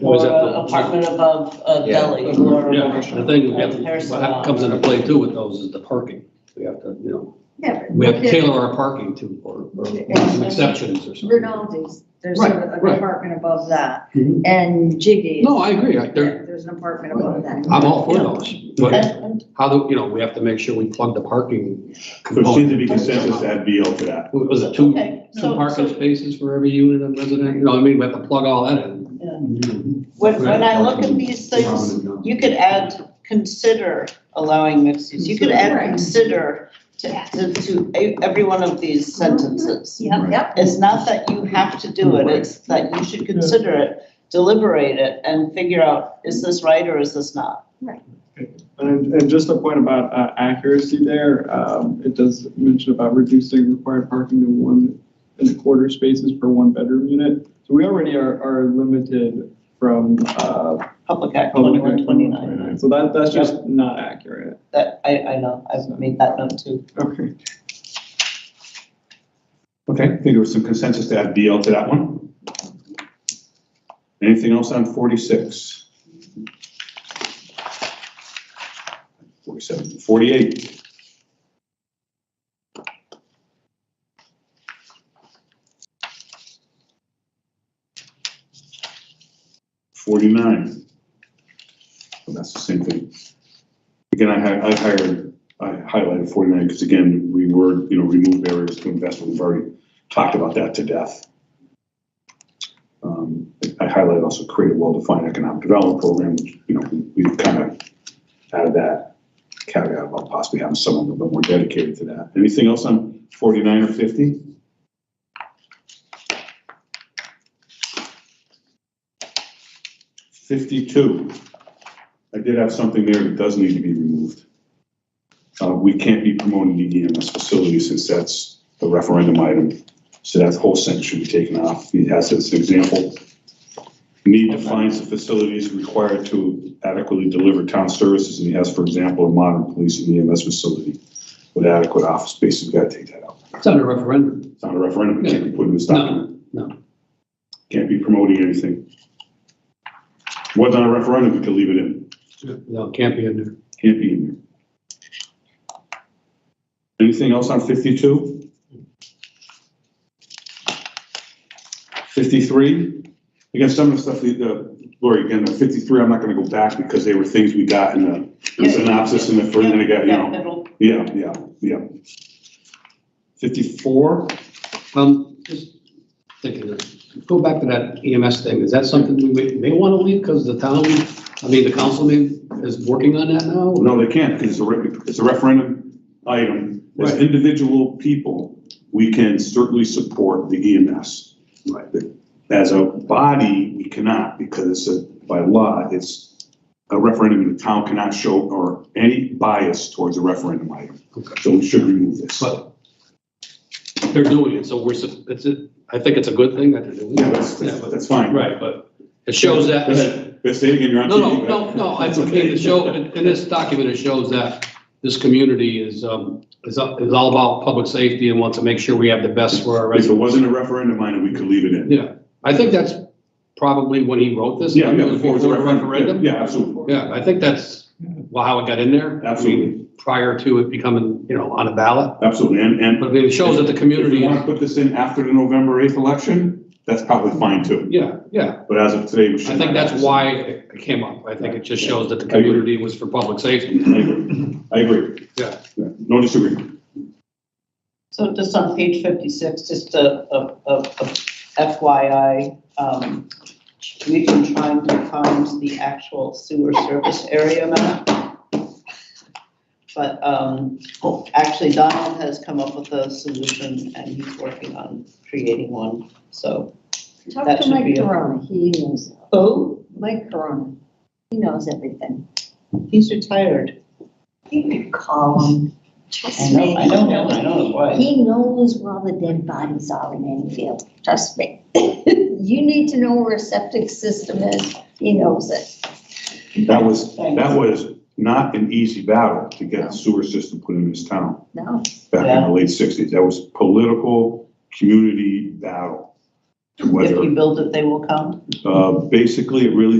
Was or that the- apartment above a Yeah. deli or. Yeah, I think we have Repair to- salon. what comes into play too with those is the parking. We have to, you know, Yeah, but we have to there's tailor our parking to, or, or some exceptions or something. Rinaldi's, there's Right, a- an right. apartment above that, Mhm. and Jiggy's. No, I agree. I- there- There's an apartment above that. I'm all for those. But And- and how do, you know, we have to make sure we plug the parking. So it component. seems to be consensus to add BL to that. What Was it two, Okay, two so- parking so- spaces for every unit and resident? You know, I mean, we have to plug all that in. When, when I look at these things, you could add, consider allowing mixed use, you could add Right. consider to, to, to e- every one of these sentences. Yep, yep. It's not that you have to do it, it's that you should consider it, deliberate it, and figure out, is this right or is this not? And, and just a point about uh, accuracy there, um, it does mention about reducing required parking to one and a quarter spaces per one bedroom unit. So we already are, are limited from, uh, Public Act Public Act twenty-one twenty-nine, so that, that's just not accurate. that, I, I know, I've made that note too. Okay. Okay, I think there was some consensus to add BL to that one. Anything else on forty-six? Forty-seven, forty-eight. Forty-nine. Well, That's the same thing. Again, I hi- I hired, I highlighted forty-nine because again, we were, you know, remove barriers to investment. We've already talked about that to death. Um, I highlighted also create a well-defined economic development program, which, you know, we- we've kind of added that caveat about possibly having someone a little bit more dedicated to that. Anything else on forty-nine or fifty? Fifty-two. I did have something there that does need to be removed. Uh, we can't be promoting the E EMS facility since that's the referendum item. So that whole sentence should be taken off. He has as an example. Need defines the facilities required to adequately deliver town services, and he has, for example, a modern police and EMS facility with adequate office space. We've got to take that out. It's under referendum. It's not a referendum. It can't be put in this document. No, no. Can't be promoting anything. Wasn't a referendum, we could leave it in. No, it can't be in there. Can't be in there. Anything else on fifty-two? Fifty-three? Again, some of the stuff, that, uh, Lori, again, the fifty-three, I'm not gonna go back because they were things we got in the- the synopsis and the, first thing I got, you know. Middle. Yeah, yeah, yeah. Fifty-four? Um, just thinking, of- go back to that EMS thing, is that something we may- may want to leave because the town, I mean, the council may, is working on that now? No, they can't, because it's a, re- it's a referendum item. As Right. individual people, we can certainly support the E EMS. Right. As a body, we cannot, because it's a, by law, it's a referendum, and the town cannot show or any bias towards a referendum item. Okay. So we should remove this. But they're doing it, so we're, sup- it's, a- I think it's a good thing that they're doing Yeah, that's, it. Yeah, that's but- that's fine. Right, but it shows that, That's- that's stating in your own. no, no, no, no, I mean, it show, in in this document, it shows that this community is, um, is, up- is all about public safety and wants to make sure we have the best for our If it residents. wasn't a referendum item, we could leave it in. Yeah, I think that's probably when he wrote this. Yeah, yeah, It was before it was a referendum. Yeah, absolutely. Yeah, I think that's wha- how it got in there. I mean, Absolutely. Prior to it becoming, you know, on a ballot, Absolutely, and, and but it shows that the If you community, want to put this in after the November 8th election, that's probably fine too. yeah, yeah. But as of today, we should. I think not. that's why it came up. I think it just shows that the community was for public safety. I agree. I agree. Yeah. No disagreement. So just on page fifty-six, just a, a, a a FYI, um, we've been trying to find the actual sewer service area map. But, um, actually Donald has come up with a solution and he's working on creating one, so. Talk That to should be Mike it. Corona, he knows, Oh, Mike Corona, he knows everything. he's retired. You could call him, I trust know, me. I know, him, I know why. He knows where all the dead bodies are in Enfield, trust me. You need to know where a septic system is, he knows it. That was, that was not an easy battle to get a sewer system put in this town No, back in Yeah. the late 60s. That was political, community battle. to If Whether, we build it, they will come. uh, basically, it really